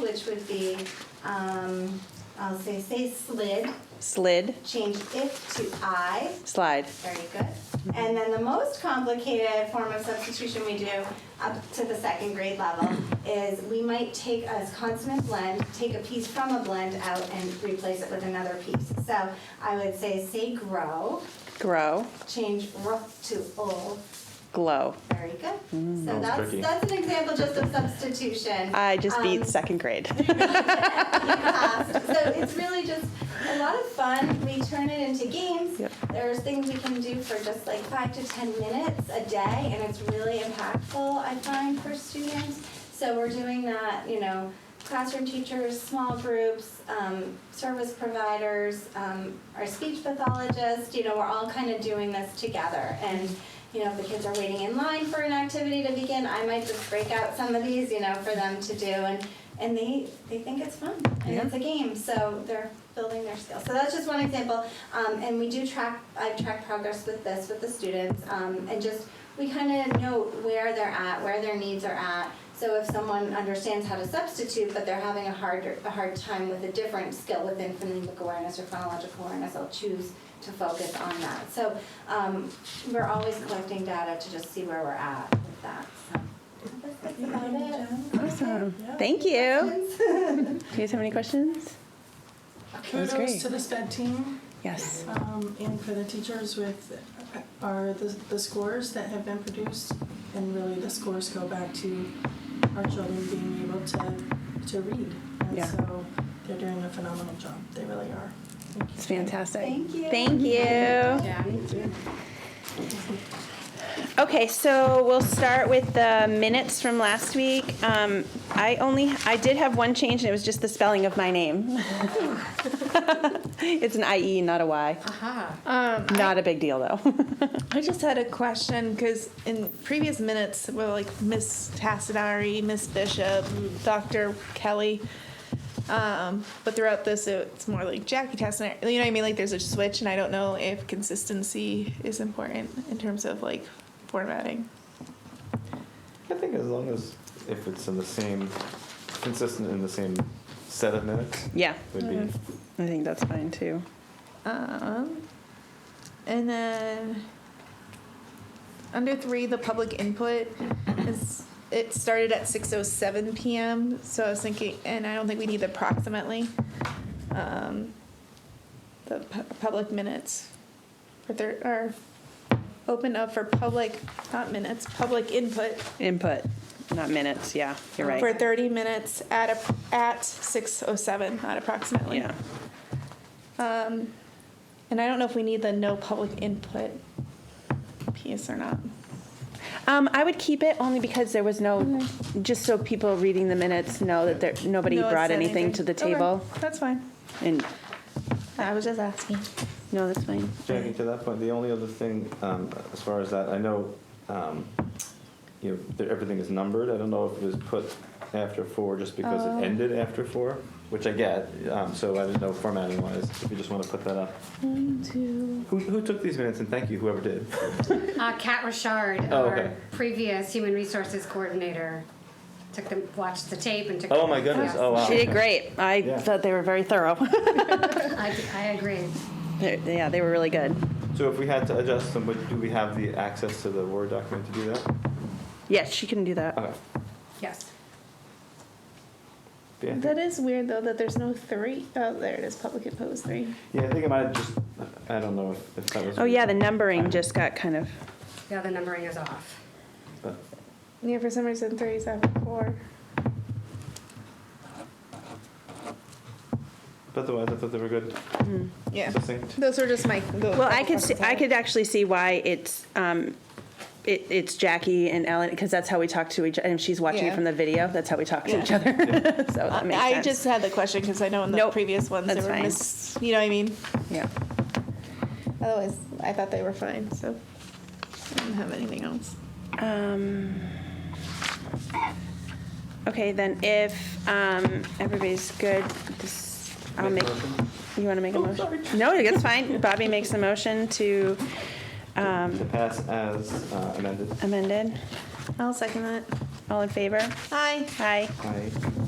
which would be, um, I'll say, say slid, Slid, change if to I, slide. very good. And then the most complicated form of substitution we do up to the second grade level is we might take a consonant blend, take a piece from a blend out and replace it with another piece. So I would say, say grow, Grow, change r to o, glow. very good. So was that's, tricky. that's an example just of substitution. I just beat Um, second grade. past. So it's really just a lot of fun. We turn it into games. Yep. There's things we can do for just like five to ten minutes a day, and it's really impactful, I find, for students. So we're doing that, you know, classroom teachers, small groups, um, service providers, um, our speech pathologist, you know, we're all kind of doing this together. And, you know, if the kids are waiting in line for an activity to begin, I might just break out some of these, you know, for them to do. And, and they, they think it's fun and it's a game, so they're building their skills. So that's just one example. Um, and we do track, I've tracked progress with this with the students, um, and just we kind of note where they're at, where their needs are at. So if someone understands how to substitute, but they're having a hard a hard time with a different skill within phonemic awareness or phonological awareness, I'll choose to focus on that. So um, we're always collecting data to just see where we're at with that. So that's about it. Awesome. Thank you. Do you guys have any questions? That's great. Kudos to the SPED team Yes. um, and for the teachers with, are the, the scores that have been produced. And really, the scores go back to our children being able to, to read. And Yeah. so they're doing a phenomenal job. They really are. Thank you. It's fantastic. Thank you. Thank you. Okay, so we'll start with the minutes from last week. Um, I only, I did have one change, and it was just the spelling of my name. It's an IE, not a Y. Um, Not a big deal, though. I just had a question because in previous minutes, well, like Miss Tassadari, Miss Bishop, Dr. Kelly, um, but throughout this, it's more like Jackie Tassadari. You know what I mean? Like there's a switch, and I don't know if consistency is important in terms of like formatting. I think as long as if it's in the same, consistent in the same set of minutes, Yeah, would be. I think that's fine, too. Um, and then under three, the public input is it started at six oh seven p.m. So I was thinking, and I don't think we need the approximately um, the pu- public minutes for thir- are open up for public not minutes public input Input, not minutes, yeah, you're for right. 30 minutes at a, at 607 not approximately Yeah. um, and I don't know if we need the no public input piece or not. Um, I would keep it only because there was no, just so people reading the minutes know that there, nobody No one brought said anything to the Okay, table. That's fine. And, I was just asking. no, that's fine. Jackie, to that point, the only other thing um, as far as that, I know, um, you know, that everything is numbered. I don't know if it was put after four just because it ended after four, which I get. Um, so I didn't know formatting wise. If you just want to put that up. One, two. Who, who took these minutes? And thank you, whoever did. Uh, Kat Richard, Oh, our okay. previous human resources coordinator, took the, watched the tape and took. Oh my goodness! Oh wow! She did great. I Yeah. thought they were very thorough. Oh. I, I agree. They're- Yeah, they were really good. So if we had to adjust them, would, do we have the access to the Word document to do that? Yes, she can do that. Okay. Yes. Yeah, I think- That is weird though that there's no three. Oh, there it is. Public input was three. yeah, I think I might have just, I don't know if, if that was. Oh, yeah, the numbering just got kind of, Yeah, the numbering is off. But- Yeah, for some reason three is after four. But otherwise, I thought they were good. Yeah. Succinct. Those were just my. the well, I couple could, see- questions I had. could actually see why it's, um, it, it's Jackie and Ellen, because that's how we talk to each, and if she's watching it Yeah. from the video, that's how we talk to each other. So Oh, that makes I sense. just had the question because I know in the Nope. previous ones That's they were fine. mis. You know what I mean? Yeah. Otherwise, I thought they were fine. So I didn't have anything else. Um, okay, then if um, everybody's good, this, I'll Make make. a motion? Oh, You want to make a motion? No, that's fine. Bobby makes a motion to To um, pass as uh, amended. amended. I'll second that. All in favor? Hi. Aye. Aye.